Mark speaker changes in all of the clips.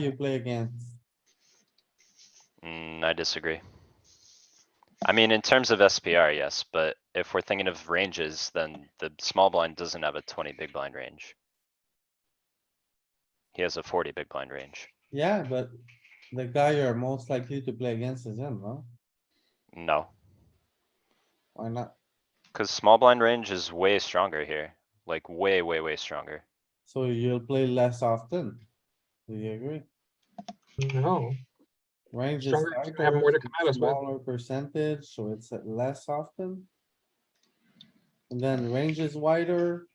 Speaker 1: you play against.
Speaker 2: Mm, I disagree. I mean, in terms of SPR, yes, but if we're thinking of ranges, then the small blind doesn't have a twenty big blind range. He has a forty big blind range.
Speaker 1: Yeah, but the guy you're most likely to play against is him, no?
Speaker 2: No,
Speaker 1: Why not?
Speaker 2: cuz small blind range is way stronger here, like way, way, way stronger.
Speaker 1: So you'll play less often. Do you agree?
Speaker 3: No,
Speaker 1: Range is
Speaker 3: Stronger, you have more to
Speaker 1: tighter,
Speaker 3: come at us with.
Speaker 1: smaller percentage, so it's at less often. And then range is wider,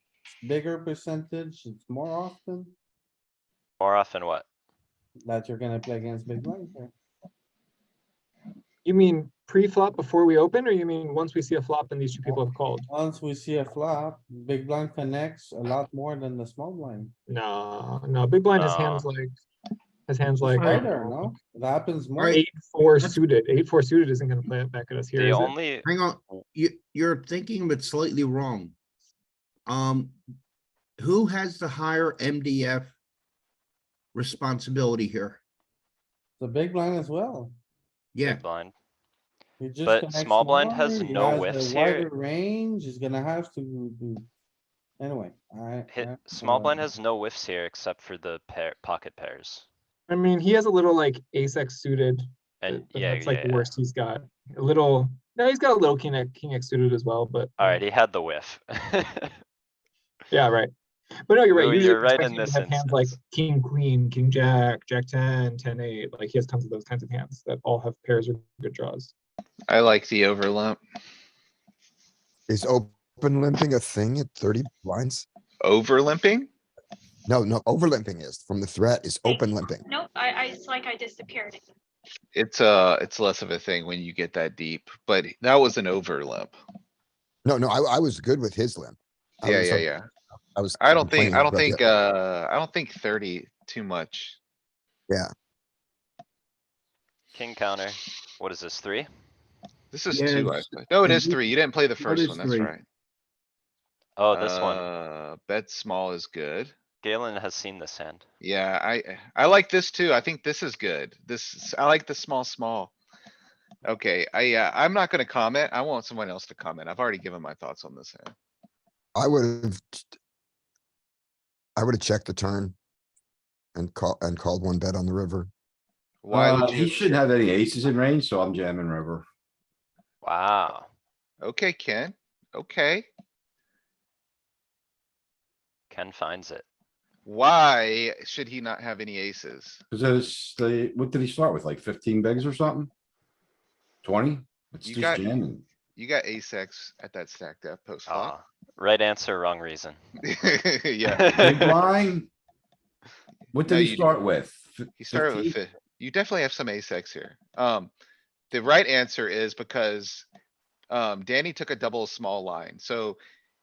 Speaker 1: bigger percentage, it's more often
Speaker 2: More often what?
Speaker 1: that you're gonna play against big blind here.
Speaker 3: you mean pre-flop before we open, or you mean once we see a flop and these two people have called?
Speaker 1: Once we see a flop, big blind connects a lot more than the small blind.
Speaker 3: No, no, big blind has
Speaker 2: No.
Speaker 3: hands like, has hands like. uh, I don't
Speaker 1: Wider,
Speaker 3: know,
Speaker 1: no? It happens more.
Speaker 3: Eight, four suited, eight, four suited isn't gonna play it back at us here,
Speaker 2: The
Speaker 3: is it?
Speaker 2: only,
Speaker 4: Hang on,
Speaker 5: Oh.
Speaker 4: you, you're thinking of it slightly wrong. Um, who has the higher MDF responsibility here?
Speaker 1: The big blind as well.
Speaker 4: Yeah,
Speaker 2: big blind,
Speaker 1: He just
Speaker 2: But
Speaker 1: connects
Speaker 2: small blind
Speaker 1: more,
Speaker 2: has
Speaker 1: he
Speaker 2: no
Speaker 1: has a
Speaker 2: whiffs here.
Speaker 1: wider Range is gonna have to do. Anyway, I. I-
Speaker 2: hit, small blind
Speaker 1: uh,
Speaker 2: has no whiffs here except for the pair, pocket pairs.
Speaker 3: I mean, he has a little like ace X suited, but
Speaker 2: And
Speaker 3: but
Speaker 2: yeah,
Speaker 3: that's
Speaker 2: yeah,
Speaker 3: like the
Speaker 2: yeah.
Speaker 3: worst he's got. A little, no, he's got a little king, X- king X suited as well, but.
Speaker 2: Alright, he had the whiff.
Speaker 3: Yeah, right. But no, you're right.
Speaker 2: You're-
Speaker 3: usually
Speaker 2: you're right
Speaker 3: expecting
Speaker 2: in
Speaker 3: him to
Speaker 2: this
Speaker 3: have hands Like
Speaker 2: instance.
Speaker 3: king, queen, king, jack, jack ten, ten, eight, like he has tons of those kinds of hands that all have pairs or good draws.
Speaker 5: I like the overlimp.
Speaker 6: Is open limping a thing at thirty blinds?
Speaker 5: Overlimping?
Speaker 6: No, no, over limping is from the threat is open limping.
Speaker 7: Nope, I, I, it's like I disappeared.
Speaker 5: It's uh, it's less of a thing when you get that deep, but that was an overlimp.
Speaker 6: No, no, I, I was good with his limp. I
Speaker 5: Yeah,
Speaker 6: was,
Speaker 5: yeah,
Speaker 6: um,
Speaker 5: yeah.
Speaker 6: I was.
Speaker 5: I don't think,
Speaker 6: complaining
Speaker 5: I don't
Speaker 6: about the-
Speaker 5: think, uh, I don't think thirty too much.
Speaker 2: King counter, what is this, three?
Speaker 5: This is
Speaker 4: Yeah,
Speaker 5: two, I
Speaker 4: it's-
Speaker 5: think. No, it is
Speaker 4: you-
Speaker 5: three. You didn't play the
Speaker 4: it
Speaker 5: first
Speaker 4: is
Speaker 5: one, that's
Speaker 4: three.
Speaker 5: right.
Speaker 2: Oh, this one.
Speaker 5: Uh, bet small is good.
Speaker 2: Galen has seen this hand.
Speaker 5: Yeah, I, I like this too. I think this is good. This, is- I like the small, small. Okay, I, uh, I'm not gonna comment. I want someone else to comment. I've already given my thoughts on this hand. uh
Speaker 6: I would have. I would have checked the turn. And call, and called one bet on the river.
Speaker 5: Why
Speaker 8: Uh,
Speaker 5: would
Speaker 8: He
Speaker 5: you?
Speaker 8: shouldn't have any aces in range, so I'm jamming river.
Speaker 2: Wow.
Speaker 5: Okay, Ken. Okay.
Speaker 2: Ken finds it.
Speaker 5: Why should he not have any aces?
Speaker 8: Cause the, what did he start with? Like fifteen bigs or something? Twenty? It's
Speaker 5: You
Speaker 8: just
Speaker 5: got-
Speaker 8: jamming.
Speaker 5: You got ace X at that stack depth post flop.
Speaker 2: Ah, right answer, wrong reason.
Speaker 5: Yeah,
Speaker 8: Big blind? What
Speaker 5: No,
Speaker 8: did
Speaker 5: you-
Speaker 8: he start with? F-
Speaker 5: he started with,
Speaker 8: 15?
Speaker 5: fi- you definitely have some ace X here. Um, the right answer is because um, Danny took a double small line, so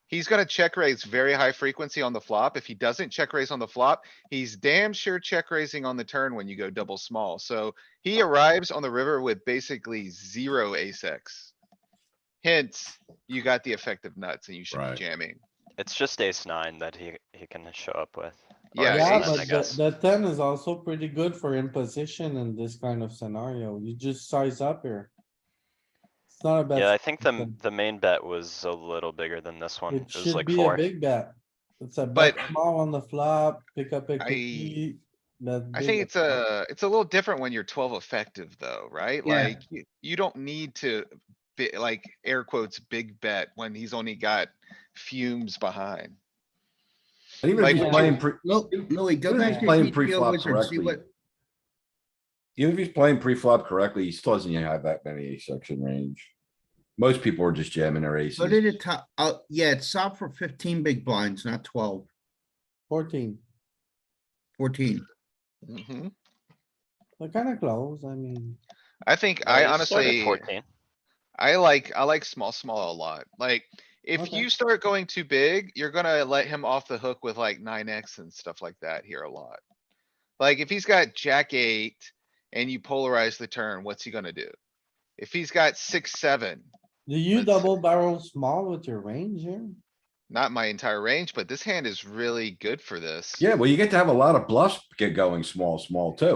Speaker 5: he's gonna check raise very high frequency on the flop. If he doesn't check raise on the flop, he's damn sure check raising on the turn when you go double small. So he arrives on the river with basically zero ace X. Hence, you got the effective nuts and you should be
Speaker 8: Right.
Speaker 5: jamming.
Speaker 2: It's just ace nine that he, he can show up with. Or
Speaker 5: Yeah,
Speaker 2: ace
Speaker 1: Yeah,
Speaker 2: ten,
Speaker 1: but
Speaker 2: I
Speaker 1: the,
Speaker 2: guess.
Speaker 1: the ten is also pretty good for imposition in this kind of scenario. You just size up here. It's not a
Speaker 2: Yeah, I
Speaker 1: bad,
Speaker 2: think the,
Speaker 1: something.
Speaker 2: the main bet was a little bigger than this one.
Speaker 1: it
Speaker 2: It was
Speaker 1: should
Speaker 2: like
Speaker 1: be a
Speaker 2: four.
Speaker 1: big bet. It's a bet
Speaker 5: But-
Speaker 1: small on the flop, pick up a
Speaker 5: I-
Speaker 1: cookie.
Speaker 5: I think it's a, it's a little different when you're twelve effective though, right?
Speaker 3: Yeah.
Speaker 5: Like, you, you don't need to be like air quotes, big bet when he's only got fumes behind.
Speaker 8: And even if
Speaker 5: Like,
Speaker 8: he's
Speaker 1: yeah.
Speaker 8: playing, pre-
Speaker 4: Lou- Louis, go
Speaker 8: even if
Speaker 4: back
Speaker 8: he's
Speaker 4: to
Speaker 8: playing
Speaker 4: GTO
Speaker 8: pre-flop
Speaker 4: wizard, see
Speaker 8: correctly.
Speaker 4: what,
Speaker 8: Even if he's playing pre-flop correctly, he still doesn't have that many ace section range. Most people are just jamming their aces.
Speaker 4: go to the top, uh, yeah, it's solved for fifteen big blinds, not 12,
Speaker 1: Fourteen,
Speaker 4: 14.
Speaker 5: Mhm.
Speaker 1: they're kinda close, I mean.
Speaker 5: I think,
Speaker 2: Well,
Speaker 5: I
Speaker 2: he started
Speaker 5: honestly,
Speaker 2: Fourteen.
Speaker 5: I like, I like small, small a lot. Like, if
Speaker 1: Okay.
Speaker 5: you start going too big, you're gonna let him off the hook with like nine X and stuff like that here a lot. Like, if he's got jack eight and you polarize the turn, what's he gonna do? If he's got six, seven,
Speaker 1: Do you
Speaker 5: Let's-
Speaker 1: double barrel small with your range here?
Speaker 5: not my entire range, but this hand is really good for this.
Speaker 8: Yeah, well, you get to have a lot of bluffs get going small, small too.